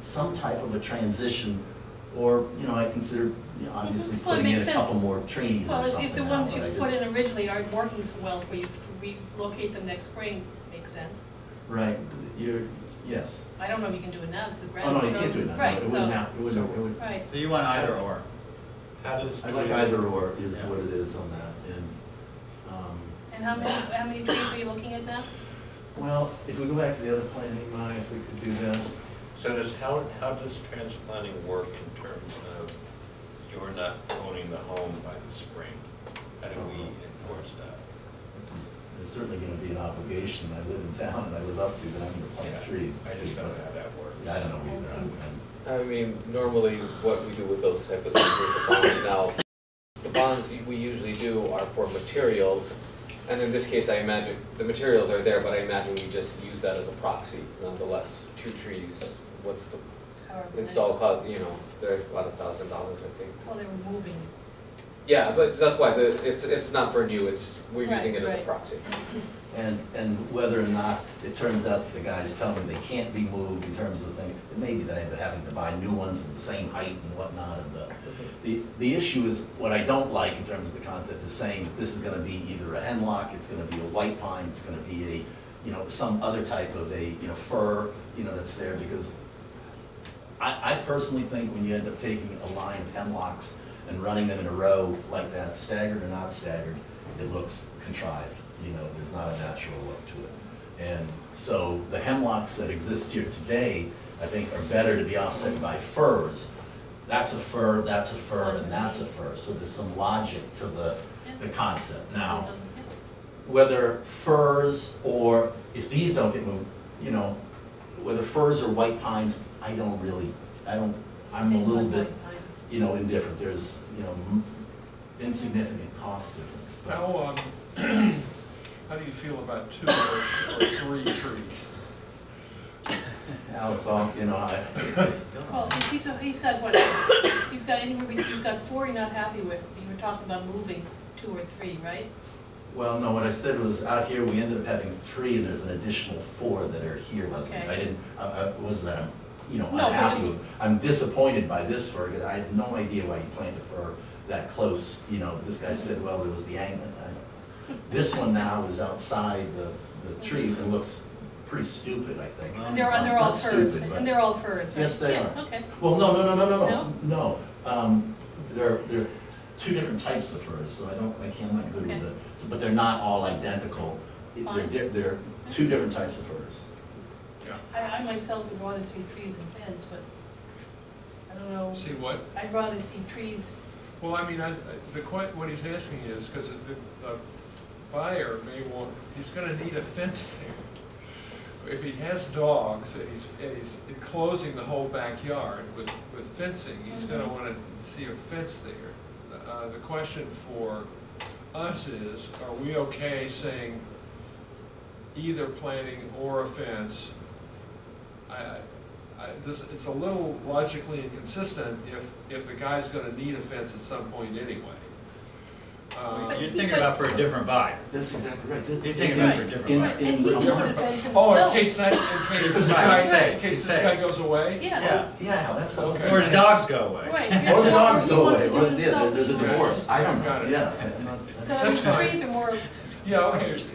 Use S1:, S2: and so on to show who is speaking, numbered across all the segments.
S1: some type of a transition, or, you know, I consider, you know, obviously
S2: Well, it
S1: putting in
S2: makes
S1: a couple more trees or
S2: Well, if-
S1: something
S2: if the
S1: now,
S2: ones you
S1: but I
S2: put
S1: just-
S2: in originally aren't working so well for you, to relocate them next spring makes sense.
S1: Right, you're, yes.
S2: I don't know if you can do it now, because the
S1: Oh,
S2: ground
S1: no,
S2: is
S1: you can't do it now, no, it
S2: Right, so,
S1: wouldn't happen, it wouldn't, it would.
S2: right.
S3: So you want either or?
S4: How does?
S1: I like
S4: the-
S1: either or is
S3: Yeah.
S1: what it is on that, and, um,
S2: And how many, how many trees are you looking at now?
S1: well, if we go back to the other plan, Imai, if we could do that.
S4: So does, how, how does transplanting work in terms of you're not owning the home by the spring? How do we enforce that?
S1: There's certainly gonna be an obligation, I live in town and I live up to that, I'm gonna
S4: Yeah,
S1: plant trees.
S4: I just don't know how that works.
S1: Yeah, I don't know either, I'm, I'm-
S5: I mean, normally what we do with those type of things is the bonds now. The bonds we usually do are for materials, and in this case, I imagine, the materials are there, but I imagine we just use that as a proxy nonetheless. Two trees, what's the
S2: However many.
S5: install cost, you know, they're about a thousand dollars, I think.
S2: Well, they were moving.
S5: Yeah, but that's why, the, it's, it's not for new, it's, we're using
S2: Right,
S5: it as a
S2: right.
S5: proxy.
S1: and, and whether or not it turns out that the guys tell me they can't be moved in terms of the thing, it may be that I end up having to buy new ones of the same height and whatnot and the, the, the issue is, what I don't like in terms of the concept is saying that this is gonna be either a hemlock, it's gonna be a white pine, it's gonna be a, you know, some other type of a, you know, fir, you know, that's there because I, I personally think when you end up taking a line of hemlocks and running them in a row like that, staggered or not staggered, it looks contrived, you know, there's not a natural look to it. And so the hemlocks that exist here today, I think are better to be offset by firs. That's a fir, that's a fir, and that's a fir, so there's some logic to the, the concept. Now,
S2: So it doesn't- yeah.
S1: whether firs or, if these don't get moved, you know, whether firs or white pines, I don't really, I don't, I'm a
S2: They
S1: little
S2: look
S1: bit,
S2: like pines.
S1: you know, indifferent, there's, you know, m- insignificant cost difference, but.
S6: How, um, how do you feel about two or or three trees?
S1: Now it's all, you know, I,
S2: Well, if he's, he's got what, you've got anywhere, between- you've got four you're not happy with, you were talking about moving two or three, right?
S1: well, no, what I said was, out here, we ended up having three, and there's an additional four that are here, wasn't it?
S2: Okay.
S1: I didn't, I, I wasn't, that I'm, you know,
S2: No, but
S1: unhappy
S2: it-
S1: with, I'm disappointed by this fir, because I had no idea why you planted a fir that close, you know, this guy said, well, there was the angle, I don't know. This one now is outside the, the tree, and looks pretty stupid, I think.
S2: And they're, and they're all
S1: Not
S2: firs,
S1: stupid, but-
S2: and they're all firs, right?
S1: Yes, they
S2: Yeah,
S1: are.
S2: okay.
S1: Well, no, no, no, no, no, no, no. Um, there, there are two different types of furs, so I don't, I can't, I'm not good
S2: Okay.
S1: with it. So- But they're not all identical. It- They're,
S2: Fine.
S1: di- they're two different types of furs.
S6: Yeah.
S2: I, I myself would rather see trees and fence, but I don't know,
S6: See what?
S2: I'd rather see trees,
S6: Well, I mean, I, I- the que, what he's asking is, because the, the buyer may want, he's gonna need a fence there. If he has dogs and he's, and he's enclosing the whole backyard with, with fencing, he's gonna
S2: Mhm.
S6: wanna see a fence there. Uh, the question for us is, are we okay saying either planting or a fence? I, I- I, this, it's a little logically inconsistent if, if the guy's gonna need a fence at some point anyway. Uh,
S3: You're thinking about for a different buyer.
S1: That's exactly right.
S3: You're saying about for different
S1: In-
S2: right,
S3: buyers.
S2: and he
S1: in-
S2: can put a fence himself.
S6: Oh, in case that, in case this guy,
S2: Right.
S6: in case this guy goes away?
S2: Yeah,
S3: Yeah.
S1: Yeah, that's the whole
S6: Okay.
S1: thing.
S3: Or his dogs go away.
S2: right. yeah,
S1: Or the dogs
S2: he
S1: go
S2: wants
S1: away,
S2: to
S1: or
S2: do it
S1: yeah, there-
S2: himself.
S1: there's a divorce. I don't
S6: Got
S1: know,
S6: it.
S1: yeah. I'm not-
S2: So I mean,
S6: That's fine.
S2: trees are more,
S6: Yeah, okay.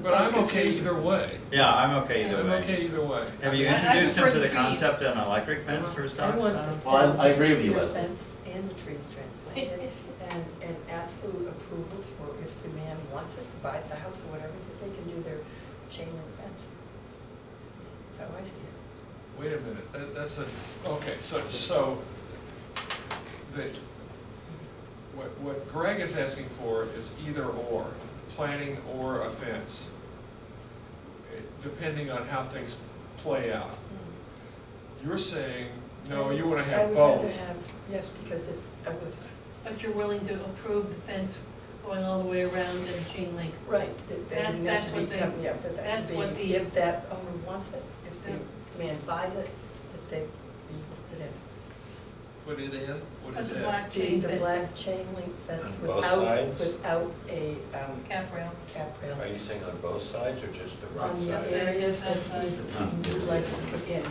S6: But I'm okay either way.
S3: Yeah, I'm okay either
S6: I'm
S3: way.
S6: okay either way.
S3: Have you
S2: I- I
S3: introduced him
S2: prefer
S3: to
S2: the
S3: the
S2: trees.
S3: concept of an electric fence for his
S7: I
S3: dogs?
S7: want the
S3: Uh,
S1: Well, I- I agree with you,
S7: fence,
S1: Leslie.
S7: the fence and the trees transplanted, and, and absolute approval for if the man wants it, buys the house or whatever, that they can do their chain link fence. That's how I see it.
S6: Wait a minute, that, that's a, okay, so, so, the, what, what Greg is asking for is either or, planning or a fence, eh, depending on how things play out.
S2: Hmm.
S6: You're saying, no, you wanna have
S7: I would rather
S6: both.
S7: have, yes, because if, I would,
S2: but you're willing to approve the fence going all the way around and chain link.
S7: right, that, that
S2: That's-
S7: would have
S2: that's
S7: to be,
S2: what they-
S7: com- yeah, but that
S2: that's what
S7: could
S2: the-
S7: be, if that owner wants it, if
S2: Yeah.
S7: the man buys it, that they, you put it in.
S6: put it in? What
S2: As
S6: is
S2: a
S6: that?
S2: black
S7: The,
S2: chain
S7: the
S2: fence,
S7: black chain link fence
S4: On both
S7: without,
S4: sides?
S7: without a, um,
S2: cap rail.
S7: cap rail.
S4: Are you saying on both sides or just the right
S7: On
S4: side?
S7: the areas that we
S3: Huh.
S7: would like to put in.